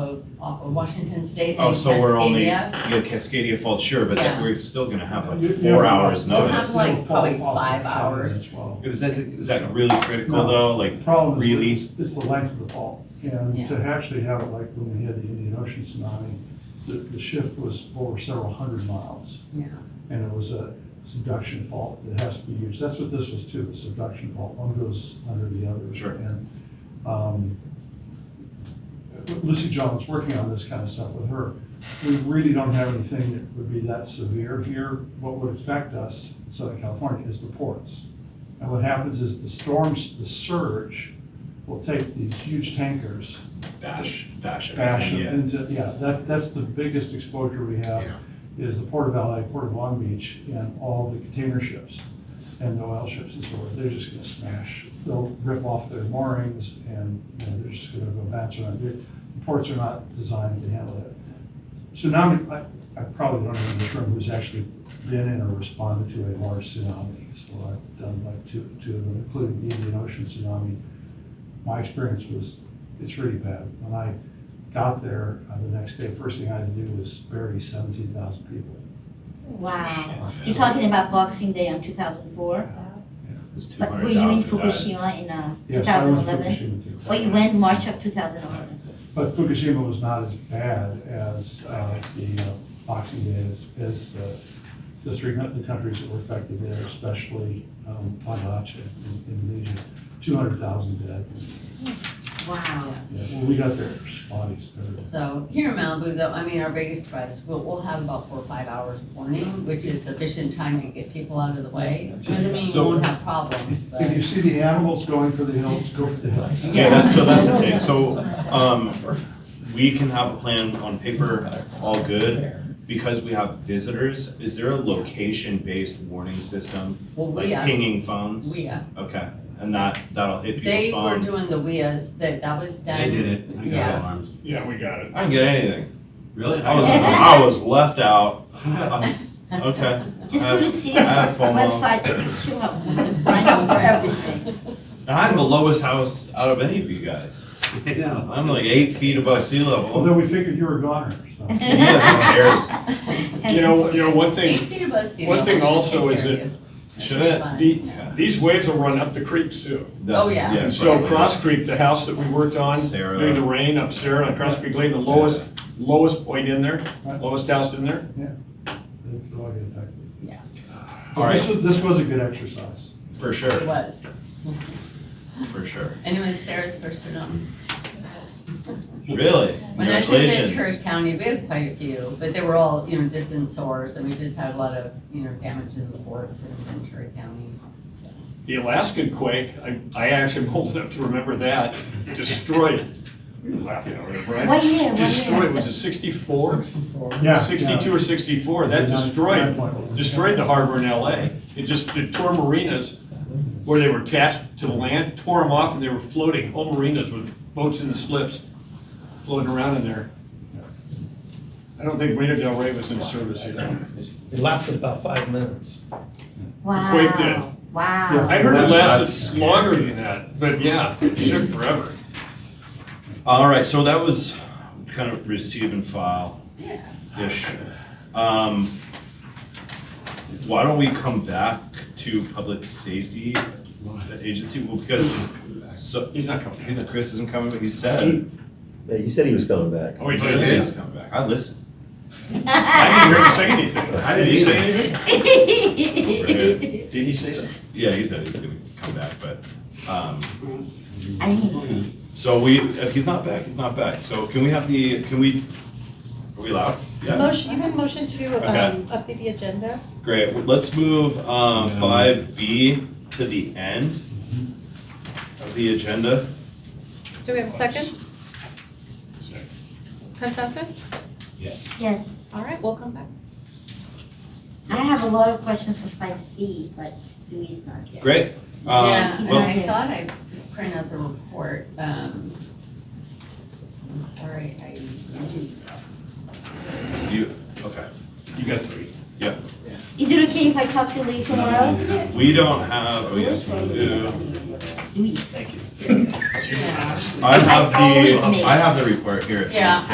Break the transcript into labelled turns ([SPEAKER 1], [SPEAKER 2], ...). [SPEAKER 1] of, off of Washington State.
[SPEAKER 2] Oh, so we're only,
[SPEAKER 1] Cascadia.
[SPEAKER 2] yeah, Cascadia Falls, sure, but that-
[SPEAKER 1] Yeah.
[SPEAKER 2] we're still gonna have
[SPEAKER 3] You-
[SPEAKER 2] like
[SPEAKER 3] you
[SPEAKER 2] four
[SPEAKER 3] have-
[SPEAKER 2] hours
[SPEAKER 3] you have
[SPEAKER 2] notice.
[SPEAKER 1] like, probably five
[SPEAKER 3] Ten
[SPEAKER 1] hours.
[SPEAKER 3] and twelve.
[SPEAKER 2] Is that, is that really critical
[SPEAKER 3] No.
[SPEAKER 2] though? Like,
[SPEAKER 3] The Problem is,
[SPEAKER 2] Really?
[SPEAKER 3] it's- it's the length of the fall,
[SPEAKER 1] Yeah.
[SPEAKER 3] and to actually have it like when we had the Indian Ocean tsunami, the, the shift was over several hundred miles,
[SPEAKER 1] Yeah,
[SPEAKER 3] and it was a subduction fault that has to be used, that's what this was too, a subduction fault, one goes under the other.
[SPEAKER 2] Sure.
[SPEAKER 3] And, um, Lucy John was working on this kind of stuff with her, we really don't have anything that would be that severe here. What would affect us in Southern California is the ports. And what happens is the storms, the surge will take these huge tankers,
[SPEAKER 2] bash, bash
[SPEAKER 3] bash
[SPEAKER 2] everything,
[SPEAKER 3] them
[SPEAKER 2] yeah.
[SPEAKER 3] into, uh, yeah, that, that's the biggest exposure we have,
[SPEAKER 2] Yeah.
[SPEAKER 3] is the Port of LA, Port of Long Beach, and all the container ships and the oil ships and so forth. They're just gonna smash, they'll rip off their moorings and, you know, they're just gonna go bounce around. The ports are not designed to handle that. Tsunami, I, I probably don't know in this room who's actually been in or responded to a large tsunami. So I've done like two, two of them, including the Indian Ocean tsunami. My experience was, it's really bad. When I got there uh, the next day, first thing I had to do was bury seventeen thousand people.
[SPEAKER 4] Wow.
[SPEAKER 2] Shit.
[SPEAKER 4] You're talking about Boxing Day on 2004?
[SPEAKER 2] It was
[SPEAKER 4] But were you in
[SPEAKER 2] 200,000 that-
[SPEAKER 4] Fukushima in uh,
[SPEAKER 3] Yes, I went to
[SPEAKER 4] 2011?
[SPEAKER 3] Fukushima too.
[SPEAKER 4] Or you went March of 2011?
[SPEAKER 3] But Fukushima was not as bad as uh, the uh, Boxing Day, as, as uh, the three, coun- the countries that were affected there, especially um, Bangladesh and Indonesia, 200,000 dead.
[SPEAKER 4] Wow.
[SPEAKER 3] Yeah, When we got there, there's bodies there.
[SPEAKER 1] so here in Malibu though, I mean, our biggest threat is we'll, we'll have about four or five hours warning, which is sufficient time to get people out of the way. Doesn't mean we
[SPEAKER 2] So-
[SPEAKER 1] won't have problems, but.
[SPEAKER 3] If you see the animals going for the hills, go for the hills.
[SPEAKER 2] Yeah, that's, so that's the thing, so, um, we can have a plan on paper, all good. Because we have visitors, is there a location-based warning system,
[SPEAKER 1] Well,
[SPEAKER 2] like
[SPEAKER 1] we, uh,
[SPEAKER 2] pinging phones?
[SPEAKER 1] we, uh,
[SPEAKER 2] Okay, and that, that'll hit people's
[SPEAKER 1] They were
[SPEAKER 2] phone?
[SPEAKER 1] doing the weas, that, that was done.
[SPEAKER 5] I got
[SPEAKER 1] Yeah,
[SPEAKER 5] alarmed.
[SPEAKER 6] Yeah, we got it.
[SPEAKER 2] I didn't get anything,
[SPEAKER 5] Really?
[SPEAKER 2] I was, I was left out, okay.
[SPEAKER 4] Just
[SPEAKER 2] I-
[SPEAKER 4] go to see
[SPEAKER 2] I have FOMO.
[SPEAKER 4] website, show up, sign up for everything.
[SPEAKER 2] And I have the lowest house out of any of you guys.
[SPEAKER 5] I know.
[SPEAKER 2] I'm like eight feet above sea level.
[SPEAKER 6] Oh,
[SPEAKER 3] Although we figured you were a goner, so.
[SPEAKER 2] Yeah, who cares?
[SPEAKER 6] You know, you know, one thing,
[SPEAKER 1] Eight feet above sea
[SPEAKER 6] one
[SPEAKER 1] level
[SPEAKER 6] thing
[SPEAKER 1] should
[SPEAKER 6] also
[SPEAKER 1] take
[SPEAKER 6] is
[SPEAKER 1] care
[SPEAKER 6] that
[SPEAKER 1] of you.
[SPEAKER 2] Should it?
[SPEAKER 1] Fine.
[SPEAKER 6] the, these waves will run up the creeks too.
[SPEAKER 2] That's-
[SPEAKER 1] Oh, yeah.
[SPEAKER 6] And so
[SPEAKER 2] probably.
[SPEAKER 6] Cross Creek, the house that we worked on
[SPEAKER 2] Sarah.
[SPEAKER 6] during the rain up Sarah on Cross Creek Lane, the lowest, lowest point in there,
[SPEAKER 3] Right.
[SPEAKER 6] lowest house in there.
[SPEAKER 3] That's all I get back.
[SPEAKER 1] Yeah.
[SPEAKER 3] But this was- This was a good exercise.
[SPEAKER 2] For
[SPEAKER 1] It
[SPEAKER 2] sure,
[SPEAKER 1] was,
[SPEAKER 2] for sure.
[SPEAKER 1] and it was Sarah's first tsunami.
[SPEAKER 2] Really?
[SPEAKER 1] When I lived in
[SPEAKER 2] Congratulations.
[SPEAKER 1] Ventura County, we had quite a few, but they were all, you know, distant sores, and we just had a lot of, you know, damage in the ports in Ventura County.
[SPEAKER 6] The Alaskan quake, I, I actually am old enough to remember that, destroyed. We were laughing over it, right?
[SPEAKER 4] What year? What
[SPEAKER 6] Destroyed,
[SPEAKER 4] year?
[SPEAKER 6] was it sixty-four?
[SPEAKER 3] Yeah.
[SPEAKER 6] Sixty-two or sixty-four, that destroyed destroyed the harbor in LA. It just, it tore marinas where they were attached to the land, tore them off and they were floating, whole marinas with boats in the slips floating around in there. I don't think Marina Del Rey was in service either.
[SPEAKER 7] It lasted about five minutes.
[SPEAKER 4] Wow.
[SPEAKER 6] quake did.
[SPEAKER 4] Wow.
[SPEAKER 6] I heard it
[SPEAKER 2] That's-
[SPEAKER 6] lasted longer than that, but yeah, it shook forever.
[SPEAKER 2] All right, so that was kind of receive and file.
[SPEAKER 1] Yeah.
[SPEAKER 2] Ish. Um, why don't we come back to public safety, the agency, well, because, so,
[SPEAKER 6] He's not coming.
[SPEAKER 2] you know, Chris isn't coming, but he said.
[SPEAKER 8] Yeah, you said he was coming back.
[SPEAKER 6] Oh, he
[SPEAKER 2] He
[SPEAKER 6] did.
[SPEAKER 2] said he's coming back. I listened.
[SPEAKER 6] I didn't hear him say anything.
[SPEAKER 2] I
[SPEAKER 6] Did
[SPEAKER 2] didn't
[SPEAKER 6] he say
[SPEAKER 2] either.
[SPEAKER 6] anything?
[SPEAKER 2] Right.
[SPEAKER 6] Did he say something?
[SPEAKER 2] Yeah, he said he's gonna come back, but, um,
[SPEAKER 4] I mean,
[SPEAKER 2] so we, if he's not back, he's not back. So can we have the, can we, are we allowed? Yeah,
[SPEAKER 9] Motion, you have motion to, um, update the agenda?
[SPEAKER 2] great. Let's move, um, five B to the end of the agenda.
[SPEAKER 9] Do we have a second consensus?
[SPEAKER 4] yes.
[SPEAKER 9] All right, we'll come back.
[SPEAKER 4] I have a lot of questions for 5C, but Louis not here.
[SPEAKER 2] Great. Um,
[SPEAKER 1] Yeah, and
[SPEAKER 2] well,
[SPEAKER 1] I thought I printed out the report, um, I'm sorry, I didn't.
[SPEAKER 2] you, okay.
[SPEAKER 6] You got three.
[SPEAKER 4] Is it okay if I talk to Louis tomorrow?
[SPEAKER 2] We don't have, oh, yes, we do.
[SPEAKER 4] Louis.
[SPEAKER 6] It's usually us.
[SPEAKER 2] I have
[SPEAKER 4] Always
[SPEAKER 2] the,
[SPEAKER 4] miss.
[SPEAKER 2] I have the report here. if you
[SPEAKER 1] Yeah,